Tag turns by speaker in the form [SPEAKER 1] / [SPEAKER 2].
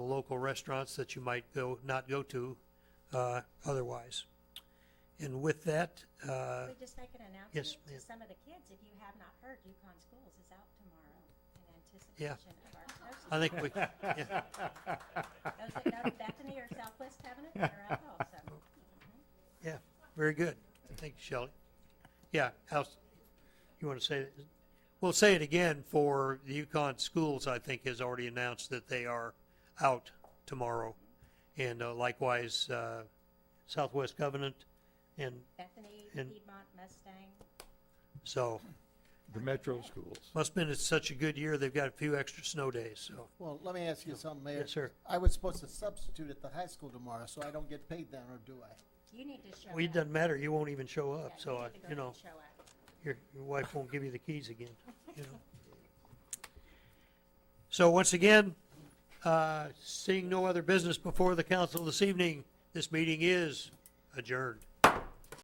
[SPEAKER 1] local restaurants that you might go, not go to uh, otherwise. And with that, uh,
[SPEAKER 2] We just make an announcement
[SPEAKER 1] yes, ma'am.
[SPEAKER 2] to some of the kids, if you have not heard, Yukon Schools is out tomorrow in anticipation of our
[SPEAKER 1] I
[SPEAKER 2] closing.
[SPEAKER 1] think we, yeah,
[SPEAKER 2] Those that go to Bethany or Southwest Heaven, they're out also.
[SPEAKER 1] Oh. yeah, very good. Thank you, Shelley. Yeah, how's, you want to say, it? we'll say it again for the Yukon Schools, I think, has already announced that they are out tomorrow. And uh, likewise, uh, Southwest Covenant, and
[SPEAKER 2] Bethany,
[SPEAKER 1] And-
[SPEAKER 2] Piedmont, Mustang.
[SPEAKER 1] so,
[SPEAKER 3] The metro schools.
[SPEAKER 1] must been it's such a good year, they've got a few extra snow days, so.
[SPEAKER 4] Well, let me ask you something, Mayor.
[SPEAKER 1] Yes, sir.
[SPEAKER 4] I was supposed to substitute at the high school tomorrow, so I don't get paid then, or do I?
[SPEAKER 2] You need to show up.
[SPEAKER 1] Well, it doesn't matter, you won't even show
[SPEAKER 2] Yeah,
[SPEAKER 1] up, so, I-
[SPEAKER 2] need to go
[SPEAKER 1] you
[SPEAKER 2] in and
[SPEAKER 1] know,
[SPEAKER 2] show up.
[SPEAKER 1] your, your wife won't give you the keys again, you know? So once again, uh, seeing no other business before the council this evening, this meeting is adjourned.